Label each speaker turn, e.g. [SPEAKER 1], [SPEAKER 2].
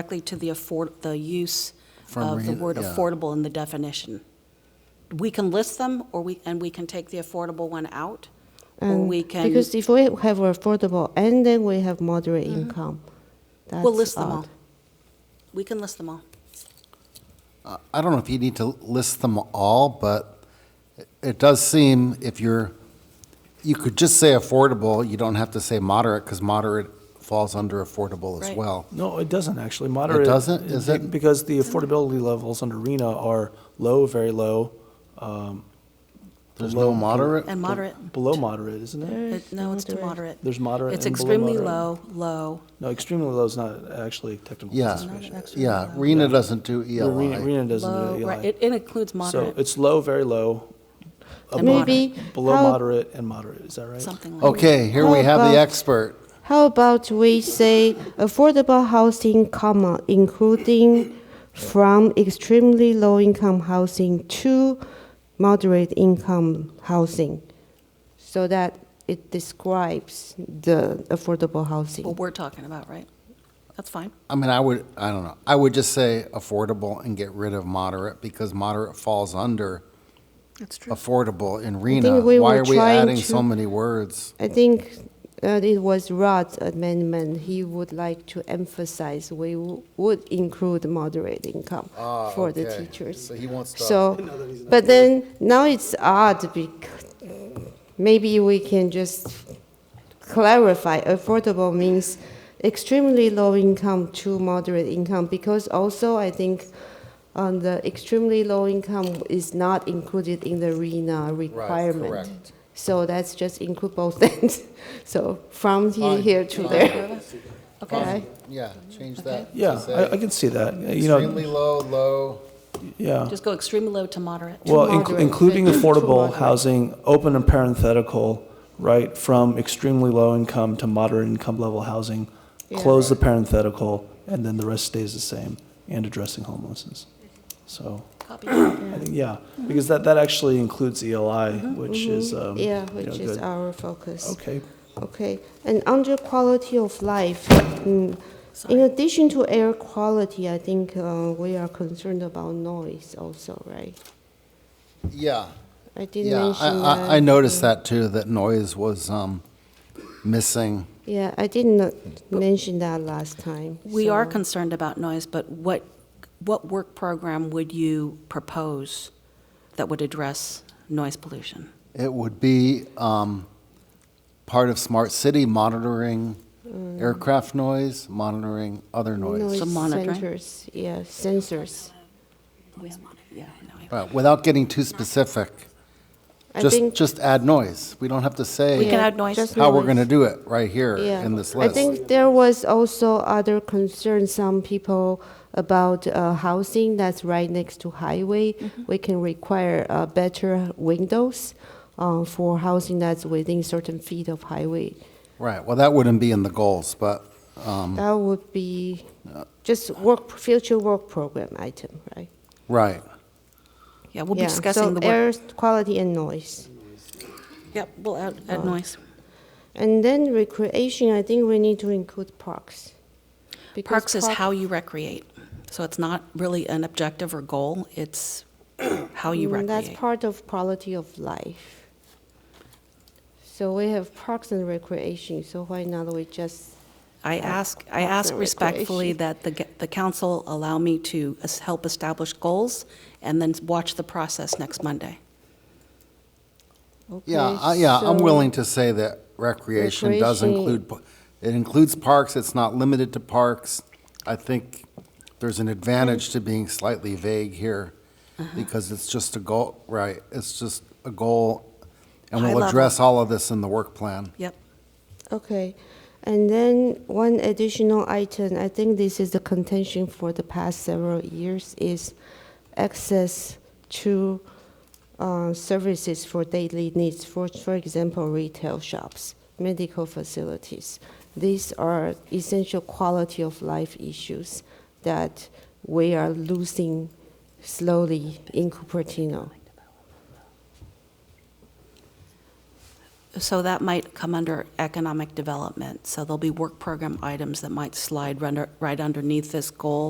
[SPEAKER 1] directly to the afford, the use
[SPEAKER 2] From
[SPEAKER 1] of the
[SPEAKER 2] read-
[SPEAKER 1] word
[SPEAKER 2] yeah.
[SPEAKER 1] affordable in the definition. We can list them, or we, and we can take the affordable one out, or
[SPEAKER 3] And
[SPEAKER 1] we can,
[SPEAKER 3] Mm, Because if we have affordable and then we have moderate income, that's
[SPEAKER 1] Mm-hmm. we'll list them all.
[SPEAKER 3] odd.
[SPEAKER 1] We can list them all.
[SPEAKER 2] I- I don't know if you need to list them all, but it- it does seem if you're, you could just say affordable, you don't have to say moderate, because moderate falls under affordable as
[SPEAKER 1] Right.
[SPEAKER 2] well.
[SPEAKER 4] No, it doesn't actually. Moderate.
[SPEAKER 2] doesn't? Is
[SPEAKER 4] be-
[SPEAKER 2] it-
[SPEAKER 4] Because the affordability levels under RENA are low, very low,
[SPEAKER 2] There's no moderate?
[SPEAKER 1] And moderate,
[SPEAKER 4] below moderate, isn't it?
[SPEAKER 3] Mm,
[SPEAKER 1] It- no, it's to moderate.
[SPEAKER 4] There's moderate
[SPEAKER 1] It's
[SPEAKER 4] and below
[SPEAKER 1] extremely low,
[SPEAKER 4] moderate.
[SPEAKER 1] low,
[SPEAKER 4] No, extremely low is not actually technical
[SPEAKER 2] Yeah,
[SPEAKER 4] classification.
[SPEAKER 2] yeah, Rena doesn't do E
[SPEAKER 4] RENA
[SPEAKER 2] ELI.
[SPEAKER 4] RENA doesn't
[SPEAKER 1] low,
[SPEAKER 4] do
[SPEAKER 1] right,
[SPEAKER 4] ELI.
[SPEAKER 1] it it includes
[SPEAKER 4] So
[SPEAKER 1] moderate,
[SPEAKER 4] it's low, very low,
[SPEAKER 1] And
[SPEAKER 4] above-
[SPEAKER 3] Maybe
[SPEAKER 4] below
[SPEAKER 3] how-
[SPEAKER 4] moderate and moderate, is that right?
[SPEAKER 1] something like.
[SPEAKER 2] Okay, here we have
[SPEAKER 3] How
[SPEAKER 2] the
[SPEAKER 3] about-
[SPEAKER 2] expert.
[SPEAKER 3] How about we say affordable housing, comma, including from extremely low income housing to moderate income housing, so that it describes the affordable
[SPEAKER 1] What
[SPEAKER 3] housing.
[SPEAKER 1] we're talking about, right? That's fine.
[SPEAKER 2] I mean, I would, I don't know, I would just say affordable and get rid of moderate, because moderate falls under
[SPEAKER 1] That's true.
[SPEAKER 2] affordable in Rena.
[SPEAKER 3] think we
[SPEAKER 2] Why
[SPEAKER 3] were
[SPEAKER 2] are we
[SPEAKER 3] trying
[SPEAKER 2] adding
[SPEAKER 3] to-
[SPEAKER 2] so many words?
[SPEAKER 3] I think uh, it was Rod's amendment. He would like to emphasize we w- would include moderate income
[SPEAKER 2] Ah,
[SPEAKER 3] for the
[SPEAKER 2] okay.
[SPEAKER 3] teachers.
[SPEAKER 2] So he wants to-
[SPEAKER 3] So, but then now it's odd because maybe we can just clarify affordable means extremely low income to moderate income because also I think on the extremely low income is not included in the RENA requirement.
[SPEAKER 2] correct.
[SPEAKER 3] So that's just include both things. So from here,
[SPEAKER 2] Fine.
[SPEAKER 3] here to there.
[SPEAKER 1] Okay,
[SPEAKER 2] Yeah, change that. to
[SPEAKER 4] Yeah,
[SPEAKER 2] say
[SPEAKER 4] I, I can see that, you
[SPEAKER 2] Extremely
[SPEAKER 4] know,
[SPEAKER 2] low, low.
[SPEAKER 4] yeah.
[SPEAKER 1] just go extremely low to moderate.
[SPEAKER 4] Well,
[SPEAKER 3] moderate,
[SPEAKER 4] inc- including
[SPEAKER 3] thank you, to
[SPEAKER 4] affordable
[SPEAKER 3] moderate.
[SPEAKER 4] housing, open and parenthetical, right, from extremely low income to moderate income level housing, close the parenthetical, and then the rest stays the same, and addressing homelessness. So,
[SPEAKER 1] Copy.
[SPEAKER 4] I think, yeah, because that, that actually includes ELI, which is, um, you
[SPEAKER 3] Mm-hmm. Yeah,
[SPEAKER 4] know,
[SPEAKER 3] which is
[SPEAKER 4] good.
[SPEAKER 3] our focus.
[SPEAKER 4] Okay,
[SPEAKER 3] Okay, and under quality of life, mm, in
[SPEAKER 1] Sorry.
[SPEAKER 3] addition to air quality, I think uh, we are concerned about noise also, right?
[SPEAKER 2] Yeah,
[SPEAKER 3] I did
[SPEAKER 2] yeah. I,
[SPEAKER 3] mention that.
[SPEAKER 2] I, I noticed that too, that noise was, um, missing.
[SPEAKER 3] Yeah, I did not mention that last time.
[SPEAKER 1] We are
[SPEAKER 3] so-
[SPEAKER 1] concerned about noise, but what, what work program would you propose that would address noise pollution?
[SPEAKER 2] It would be, um, part of smart city monitoring aircraft noise, monitoring other noise.
[SPEAKER 3] Mm. Noise
[SPEAKER 1] Some monitoring?
[SPEAKER 3] sensors, yeah, sensors.
[SPEAKER 1] Yeah, no,
[SPEAKER 2] Right, without getting too specific,
[SPEAKER 3] I
[SPEAKER 2] just,
[SPEAKER 3] think.
[SPEAKER 2] just add noise. We don't have to
[SPEAKER 1] We can
[SPEAKER 2] say
[SPEAKER 3] yeah,
[SPEAKER 1] add noise.
[SPEAKER 3] just
[SPEAKER 2] how we're
[SPEAKER 3] noise.
[SPEAKER 2] gonna do it right here
[SPEAKER 3] Yeah.
[SPEAKER 2] in this
[SPEAKER 3] I
[SPEAKER 2] list.
[SPEAKER 3] think there was also other concerns, some people about uh, housing that's right next to highway.
[SPEAKER 1] Mm-hmm.
[SPEAKER 3] We can require uh, better windows uh, for housing that's within certain feet of highway.
[SPEAKER 2] Right, well, that wouldn't be in the goals, but, um,
[SPEAKER 3] That would be just work, future work program item, right?
[SPEAKER 2] right.
[SPEAKER 1] Yeah, we'll be
[SPEAKER 3] Yeah,
[SPEAKER 1] discussing the
[SPEAKER 3] So
[SPEAKER 1] work.
[SPEAKER 3] air quality and noise.
[SPEAKER 1] Yep, we'll add,
[SPEAKER 3] Oh.
[SPEAKER 1] add noise.
[SPEAKER 3] And then recreation, I think we need to include parks. because
[SPEAKER 1] Parks is
[SPEAKER 3] park-
[SPEAKER 1] how you recreate, so it's not really an objective or goal, it's how you
[SPEAKER 3] Mm, That's
[SPEAKER 1] recreate.
[SPEAKER 3] part of quality of life. So we have parks and recreation, so why not we just,
[SPEAKER 1] I ask, I
[SPEAKER 3] Parks
[SPEAKER 1] ask
[SPEAKER 3] and
[SPEAKER 1] respectfully
[SPEAKER 3] recreation.
[SPEAKER 1] that the, ge- the council allow me to es- help establish goals and then watch the process next Monday.
[SPEAKER 3] okay?
[SPEAKER 2] Yeah, I- yeah, I'm
[SPEAKER 3] so-
[SPEAKER 2] willing to say that recreation does
[SPEAKER 3] Recreation-
[SPEAKER 2] include, pa- it includes parks, it's not limited to parks. I think there's an advantage to being slightly vague here, because it's just a goal, right, it's just a goal, and
[SPEAKER 1] High
[SPEAKER 2] we'll
[SPEAKER 1] level.
[SPEAKER 2] address all of this in the work plan.
[SPEAKER 1] Yep,
[SPEAKER 3] Okay, and then one additional item, I think this is the contention for the past several years, is access to uh, services for daily needs, for, for example, retail shops, medical facilities. These are essential quality of life issues that we are losing slowly in Cupertino.
[SPEAKER 1] So that might come under economic development. So there'll be work program items that might slide run- right underneath this goal